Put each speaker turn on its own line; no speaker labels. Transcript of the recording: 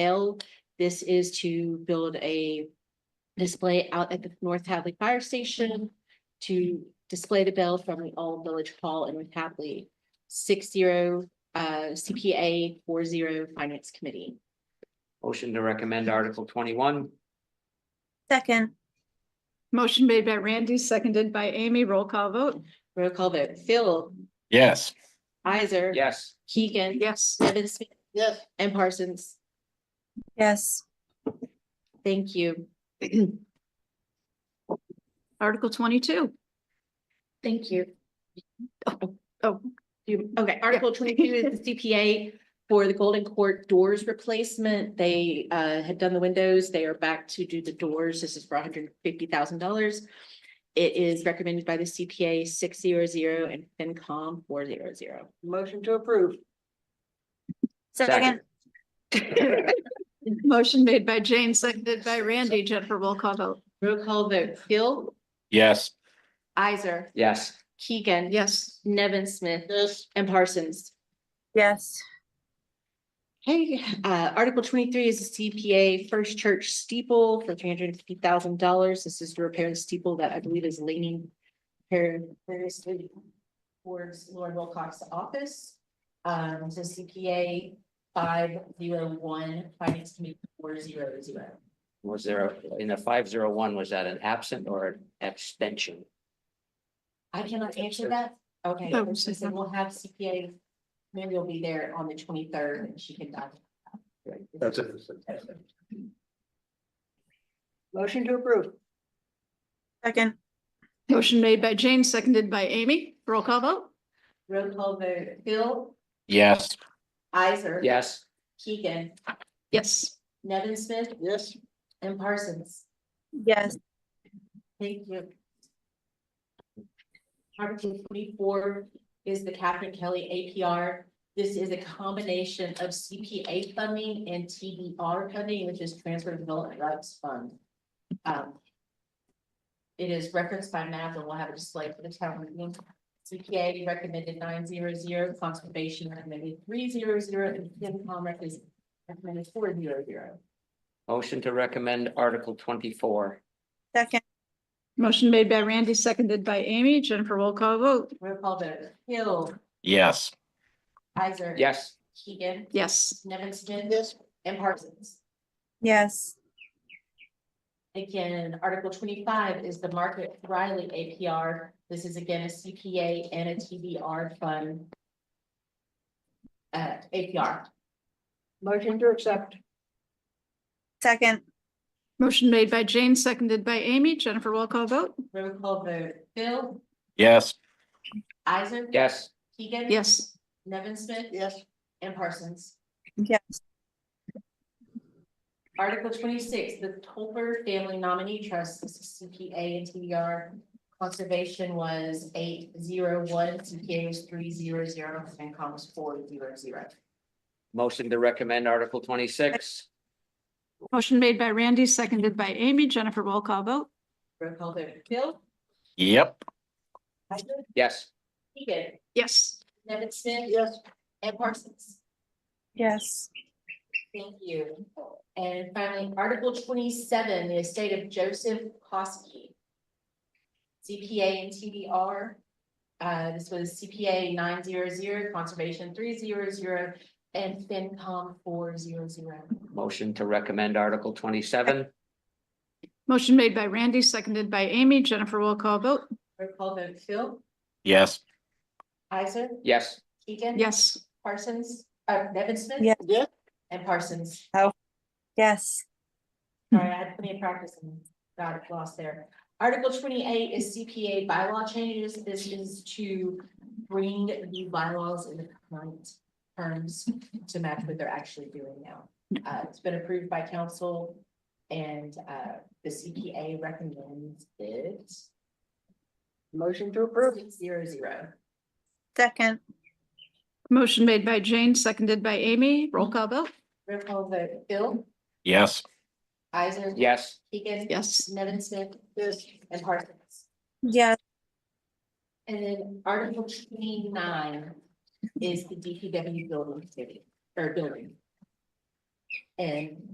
L. This is to build a display out at the North Hadley Fire Station to display the bell from the All Village Hall in North Hadley. Six zero, uh, CPA four zero Finance Committee.
Motion to recommend Article twenty-one,
Second,
Motion made by Randy, seconded by Amy. Roll call vote.
Roll call vote, Phil,
Yes.
Isaac.
yes.
Keegan.
Yes.
Nevin Smith
Yes.
and Parsons.
yes,
Thank you.
Article twenty-two.
Thank you.
Oh,
You- Okay, Article twenty-two is the CPA for the Golden Court doors replacement. They uh had done the windows. They are back to do the doors. This is for hundred and fifty thousand dollars. It is recommended by the CPA six zero zero and FinCom four zero zero.
Motion to approve.
second,
motion made by Jane, seconded by Randy. Jennifer, roll call vote.
Roll call vote, Phil,
Yes.
Isaac,
Yes,
Keegan.
Yes.
Nevin Smith. And Parsons.
yes,
Hey, uh, Article twenty-three is a CPA First Church steeple for three hundred and fifty thousand dollars. This is to repair the steeple that I believe is leaning variously towards Lauren Wilcox's office. Um, so CPA five zero one, Finance Committee four zero zero.
was there, a- in the five zero one, was that an absent or an abstention?
I cannot answer that. Okay,
Oh,
she said we'll have CPA, maybe will be there on the twenty-third and she can. dive into that.
That's it.
Motion to approve.
second,
Motion made by Jane, seconded by Amy. Roll call vote.
Roll call vote, Phil,
Yes.
Isaac.
Yes.
Keegan,
Yes.
Nevin Smith,
Yes.
and Parsons.
yes,
Thank you. Article forty-four is the Catherine Kelly APR. This is a combination of CPA funding and TDR funding, which is Transfer Development Rights Fund. Um, It is referenced by map and we'll have a display for the town meeting. CPA recommended nine zero zero, Conservation recommended three zero zero, and FinCom recommends- recommended four zero zero.
Motion to recommend Article twenty-four,
second,
Motion made by Randy, seconded by Amy. Jennifer, roll call vote.
Roll call vote, Hill,
Yes.
Isaac.
yes.
Keegan,
Yes.
Nevin Smith. Yes. And Parsons.
yes,
Again, Article twenty-five is the Market Riley APR. This is again a CPA and a TBR fund. Uh, APR.
Motion to accept.
second,
Motion made by Jane, seconded by Amy. Jennifer, roll call vote.
Roll call vote, Phil,
Yes.
Isaac.
Yes,
Keegan.
Yes.
Nevin Smith. Yes. And Parsons.
yes,
Article twenty-six, the Tolbert Family Nominee Trust, this is CPA and TBR. Conservation was eight zero one, CPA was three zero zero, and COM was four zero zero.
motion to recommend Article twenty-six,
Motion made by Randy, seconded by Amy. Jennifer, roll call vote.
Roll call vote, Phil,
Yep.
Heisler,
yes.
Keegan,
Yes.
Nevin Smith. Yes. And Parsons.
yes,
Thank you. And finally, Article twenty-seven, the estate of Joseph Kosky. CPA and TBR. Uh, this was CPA nine zero zero, Conservation three zero zero, and FinCom four zero zero.
Motion to recommend Article twenty-seven,
Motion made by Randy, seconded by Amy. Jennifer, roll call vote.
Roll call vote, Phil,
Yes.
Isaac,
yes.
Keegan.
Yes.
Parsons, uh, Nevin Smith.
Yeah.
Yeah.
And Parsons.
yes,
Sorry, I had plenty of practice and got it lost there. Article twenty-eight is CPA bylaw changes. This is to bring the bylaws in the current terms to match what they're actually doing now. Uh, it's been approved by council and, uh, the CPA recommends it. Motion to approve. Zero, zero.
second,
Motion made by Jane, seconded by Amy. Roll call vote.
Roll call vote, Bill,
Yes.
Isaac.
Yes,
Keegan.
Yes.
Nevin Smith. And Parsons.
yes,
And then Article twenty-nine is the DPW building committee, or building. and